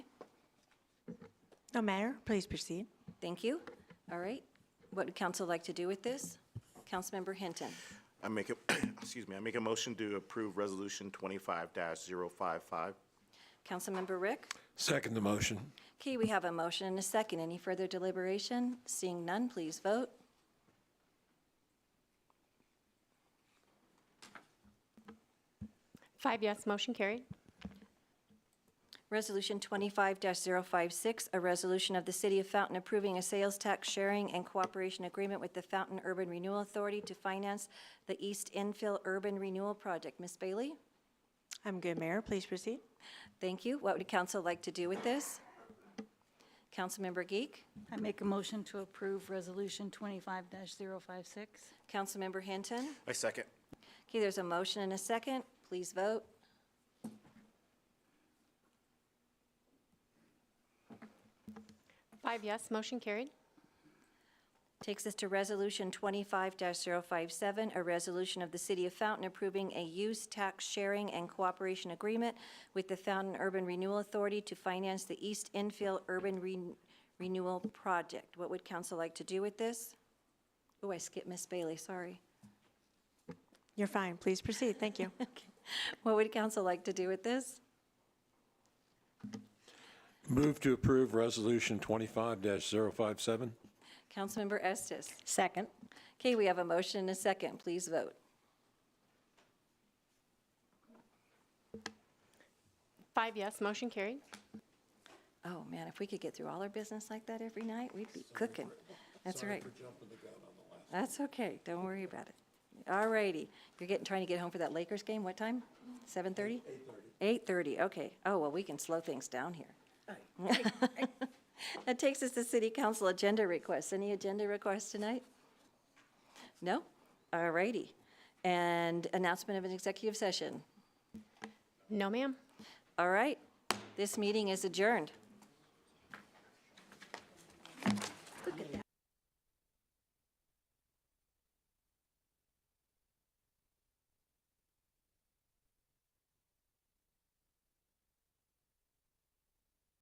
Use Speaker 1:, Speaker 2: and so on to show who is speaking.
Speaker 1: No matter, please proceed.
Speaker 2: Thank you. All right. What would council like to do with this? Councilmember Hinton.
Speaker 3: I make a, excuse me, I make a motion to approve Resolution twenty-five 55
Speaker 2: Councilmember Rick?
Speaker 4: Second the motion.
Speaker 2: Okay, we have a motion and a second. Any further deliberation? Seeing none, please vote.
Speaker 5: Five yes, motion carried.
Speaker 2: Resolution 25-056, a resolution of the City of Fountain approving a sales tax sharing and cooperation agreement with the Fountain Urban Renewal Authority to finance the East Infill Urban Renewal Project. Ms. Bailey?
Speaker 1: I'm good, Mayor, please proceed.
Speaker 2: Thank you. What would council like to do with this? Councilmember Geek?
Speaker 6: I make a motion to approve Resolution 25-056.
Speaker 2: Councilmember Hinton?
Speaker 3: I second.
Speaker 2: Okay, there's a motion and a second. Please vote.
Speaker 5: Five yes, motion carried.
Speaker 2: Takes us to Resolution 25-057, a resolution of the City of Fountain approving a use tax sharing and cooperation agreement with the Fountain Urban Renewal Authority to finance the East Infill Urban Ren- Renewal Project. What would council like to do with this? Oh, I skipped Miss Bailey, sorry.
Speaker 1: You're fine, please proceed, thank you.
Speaker 2: What would council like to do with this?
Speaker 4: Move to approve Resolution 25-057.
Speaker 2: Councilmember Estes.
Speaker 6: Second.
Speaker 2: Okay, we have a motion and a second. Please vote.
Speaker 5: Five yes, motion carried.
Speaker 2: Oh, man, if we could get through all our business like that every night, we'd be cooking. That's right. That's okay, don't worry about it. All righty, you're getting, trying to get home for that Lakers game, what time? 7:30? 8:30. 8:30, okay. Oh, well, we can slow things down here. That takes us to city council agenda requests. Any agenda requests tonight? No? All righty. And announcement of an executive session.
Speaker 5: No, ma'am.
Speaker 2: All right, this meeting is adjourned.